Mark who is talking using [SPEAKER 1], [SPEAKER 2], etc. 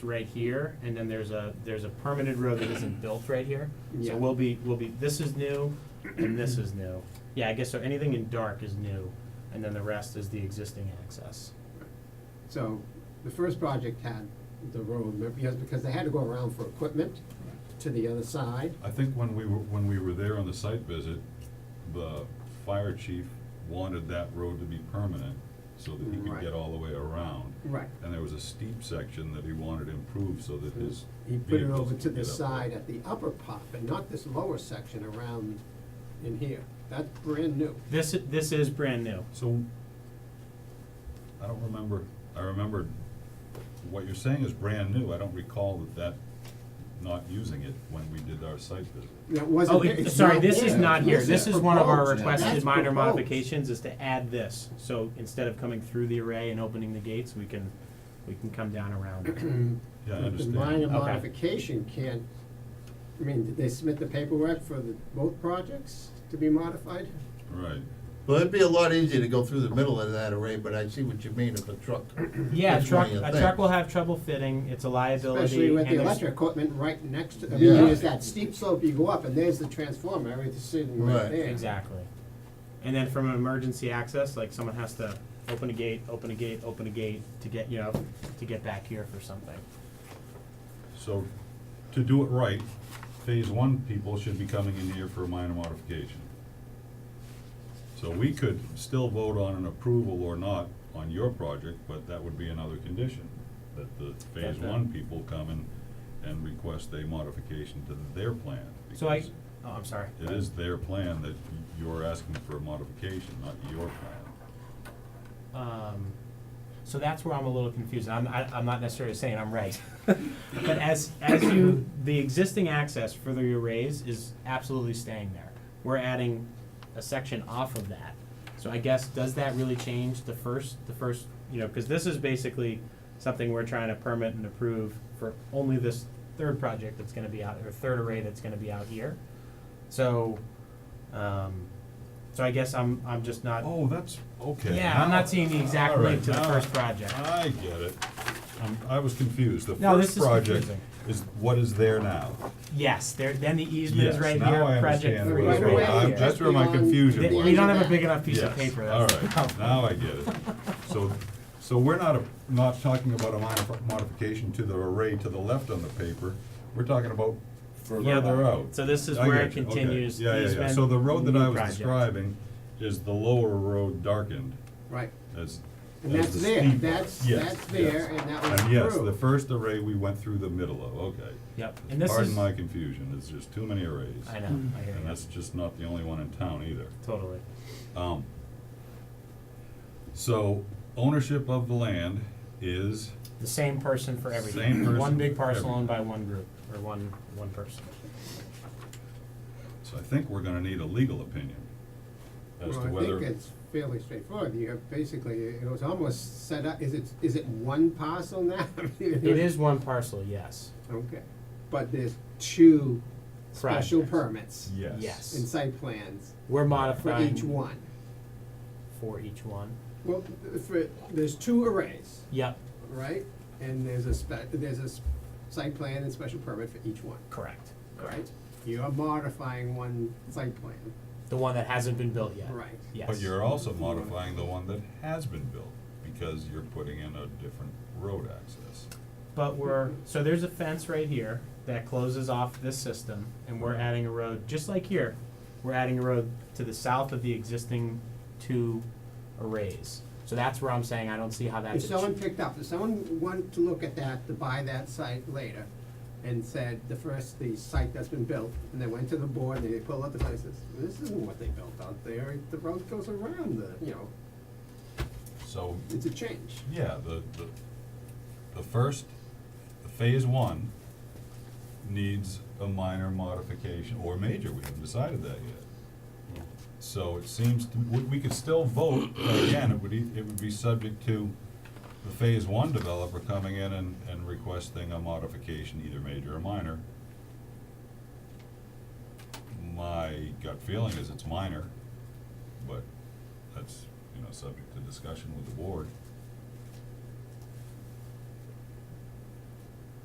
[SPEAKER 1] right here, and then there's a, there's a permanent road that isn't built right here.
[SPEAKER 2] Yeah.
[SPEAKER 1] So we'll be, we'll be, this is new, and this is new. Yeah, I guess so, anything in dark is new, and then the rest is the existing access.
[SPEAKER 2] So the first project had the road, but because, because they had to go around for equipment to the other side.
[SPEAKER 3] I think when we were, when we were there on the site visit, the fire chief wanted that road to be permanent so that he could
[SPEAKER 2] Right.
[SPEAKER 3] get all the way around.
[SPEAKER 2] Right.
[SPEAKER 3] And there was a steep section that he wanted improved so that his
[SPEAKER 2] He put it
[SPEAKER 3] vehicles
[SPEAKER 2] over
[SPEAKER 3] could
[SPEAKER 2] to the
[SPEAKER 3] get up there.
[SPEAKER 2] side at the upper part, but not this lower section around in here. That's brand new.
[SPEAKER 1] This, i- this is brand new.
[SPEAKER 3] So, I don't remember, I remember, what you're saying is brand new, I don't recall that that, not using it when we did our site visit.
[SPEAKER 2] That wasn't.
[SPEAKER 1] Oh,
[SPEAKER 2] there.
[SPEAKER 1] it-
[SPEAKER 2] It's
[SPEAKER 1] sorry,
[SPEAKER 2] not
[SPEAKER 1] this is
[SPEAKER 2] there.
[SPEAKER 1] not here, this is one of our
[SPEAKER 2] proposed.
[SPEAKER 1] requested
[SPEAKER 2] That's
[SPEAKER 1] minor
[SPEAKER 2] proposed.
[SPEAKER 1] modifications, is to add this. So instead of coming through the array and opening the gates, we can, we can come down around it.
[SPEAKER 3] Yeah, I
[SPEAKER 2] But
[SPEAKER 3] understand.
[SPEAKER 2] The minor
[SPEAKER 1] Okay.
[SPEAKER 2] modification can't, I mean, did they submit the paperwork for the, both projects to be modified?
[SPEAKER 3] Right,
[SPEAKER 4] Well, it'd be a lot easier to go through the middle of that array, but I see what you mean if a truck.
[SPEAKER 1] Yeah, a
[SPEAKER 4] It's
[SPEAKER 1] truck,
[SPEAKER 4] one of your
[SPEAKER 1] a
[SPEAKER 4] things.
[SPEAKER 1] truck will have trouble fitting, it's a liability.
[SPEAKER 2] Especially with
[SPEAKER 1] and
[SPEAKER 2] the
[SPEAKER 1] there's-
[SPEAKER 2] electric equipment right next to, I mean,
[SPEAKER 4] Yeah.
[SPEAKER 2] there's that steep slope you go up, and there's the transformer, everything's sitting right
[SPEAKER 4] Right.
[SPEAKER 2] there.
[SPEAKER 1] Exactly. And then from an emergency access, like someone has to open a gate, open a gate, open a gate to get, you know, to get back here for something.
[SPEAKER 3] so, to do it right, phase one people should be coming in here for a minor modification. So we could still vote on an approval or not on your project, but that would be another condition, that the phase
[SPEAKER 1] That the-
[SPEAKER 3] one people come and, and request a modification to their plan.
[SPEAKER 1] So I,
[SPEAKER 3] because
[SPEAKER 1] oh, I'm sorry.
[SPEAKER 3] It is their plan that you're asking for a modification, not your plan.
[SPEAKER 1] Um, so that's where I'm a little confused. I'm, I, I'm not necessarily saying I'm right. but as, as you, the existing access for the arrays is absolutely staying there. We're adding a section off of that. So I guess, does that really change the first, the first, you know, because this is basically something we're trying to permit and approve for only this third project that's gonna be out, or third array that's gonna be out here. So, um, so I guess I'm, I'm just not.
[SPEAKER 3] Oh, that's, okay.
[SPEAKER 1] Yeah, I'm
[SPEAKER 3] now-
[SPEAKER 1] not seeing the exact
[SPEAKER 3] all right,
[SPEAKER 1] link to the
[SPEAKER 3] now
[SPEAKER 1] first project.
[SPEAKER 3] I get it. Um, I was confused. The
[SPEAKER 1] No, this
[SPEAKER 3] first
[SPEAKER 1] is
[SPEAKER 3] project
[SPEAKER 1] confusing.
[SPEAKER 3] is what is there now.
[SPEAKER 1] Yes, there, then the easement is
[SPEAKER 3] Yes,
[SPEAKER 1] right
[SPEAKER 3] now I
[SPEAKER 1] here, project
[SPEAKER 3] understand
[SPEAKER 1] three
[SPEAKER 3] where
[SPEAKER 1] is
[SPEAKER 2] Right
[SPEAKER 3] it's going.
[SPEAKER 2] away,
[SPEAKER 1] right
[SPEAKER 3] I'm-
[SPEAKER 1] here.
[SPEAKER 3] That's where my
[SPEAKER 2] beyond
[SPEAKER 3] confusion
[SPEAKER 1] Th-
[SPEAKER 3] was.
[SPEAKER 1] We don't have a big enough piece of
[SPEAKER 3] Yes,
[SPEAKER 1] paper,
[SPEAKER 3] All
[SPEAKER 1] that's the
[SPEAKER 3] right,
[SPEAKER 1] problem.
[SPEAKER 3] now I get it. So, so we're not, a- not talking about a minor modification to the array to the left on the paper. We're talking about
[SPEAKER 1] Yeah,
[SPEAKER 3] further out.
[SPEAKER 1] So this is
[SPEAKER 3] I
[SPEAKER 1] where
[SPEAKER 3] get
[SPEAKER 1] it
[SPEAKER 3] you, okay.
[SPEAKER 1] continues,
[SPEAKER 3] Yeah, yeah, yeah.
[SPEAKER 1] easement,
[SPEAKER 3] So the road that I
[SPEAKER 1] new
[SPEAKER 3] was
[SPEAKER 1] project.
[SPEAKER 3] describing is the lower road darkened
[SPEAKER 2] Right.
[SPEAKER 3] as,
[SPEAKER 2] And
[SPEAKER 3] as
[SPEAKER 2] that's
[SPEAKER 3] the
[SPEAKER 2] there,
[SPEAKER 3] steep-
[SPEAKER 2] that's-
[SPEAKER 3] Yes,
[SPEAKER 2] that's there,
[SPEAKER 3] yes.
[SPEAKER 2] and that was
[SPEAKER 3] And yes,
[SPEAKER 2] approved.
[SPEAKER 3] the first array we went through the middle of, okay.
[SPEAKER 1] Yep, and this
[SPEAKER 3] Pardon
[SPEAKER 1] is,
[SPEAKER 3] my Mm.
[SPEAKER 1] I
[SPEAKER 3] confusion, there's just too many arrays.
[SPEAKER 1] know, I hear
[SPEAKER 3] And
[SPEAKER 1] you,
[SPEAKER 3] that's just not the only one in town either.
[SPEAKER 1] totally.
[SPEAKER 3] Um, so ownership of the land is,
[SPEAKER 1] The same person for
[SPEAKER 3] Same
[SPEAKER 1] everything,
[SPEAKER 3] person
[SPEAKER 1] one big
[SPEAKER 3] for
[SPEAKER 1] parcel
[SPEAKER 3] everything.
[SPEAKER 1] owned by one group, or one, one person.
[SPEAKER 3] so I think we're gonna need a legal opinion as to
[SPEAKER 2] Well, I think
[SPEAKER 3] whether,
[SPEAKER 2] it's fairly straightforward, you have basically, it was almost set up, is it, is it one parcel now?
[SPEAKER 1] It is one parcel, yes,
[SPEAKER 2] Okay, but there's two special
[SPEAKER 1] Projects.
[SPEAKER 2] permits
[SPEAKER 3] yes.
[SPEAKER 1] yes.
[SPEAKER 2] and site plans
[SPEAKER 1] we're
[SPEAKER 2] for
[SPEAKER 1] modifying.
[SPEAKER 2] each one.
[SPEAKER 1] For each one,
[SPEAKER 2] Well, for, there's two arrays,
[SPEAKER 1] yep,
[SPEAKER 2] right? And there's a spec, there's a s- site plan and special permit for each one,
[SPEAKER 1] correct,
[SPEAKER 2] right? You're modifying one site plan,
[SPEAKER 1] the one that hasn't been built yet,
[SPEAKER 2] right?
[SPEAKER 1] yes.
[SPEAKER 3] But you're also modifying the one that has been built, because you're putting in a different road access.
[SPEAKER 1] But we're, so there's a fence right here that closes off this system, and we're adding a road, just like here, we're adding a road to the south of the existing two arrays. So that's where I'm saying I don't see how
[SPEAKER 2] If
[SPEAKER 1] that's. a
[SPEAKER 2] someone
[SPEAKER 1] ch-
[SPEAKER 2] picked up, if someone wanted to look at that, to buy that site later, and said, the first, the site that's been built, and they went to the board, and they pulled up the places, this isn't what they built out there, the road goes around the, you know,
[SPEAKER 3] So
[SPEAKER 2] it's a change.
[SPEAKER 3] Yeah, the, the, the first, the phase one needs a minor modification, or major, we haven't decided that yet. So it seems, to- we, we could still vote, but again, it would, e- it would be subject to the phase one developer coming in and, and requesting a modification, either major or minor. My gut feeling is it's minor, but that's, you know, subject to discussion with the board.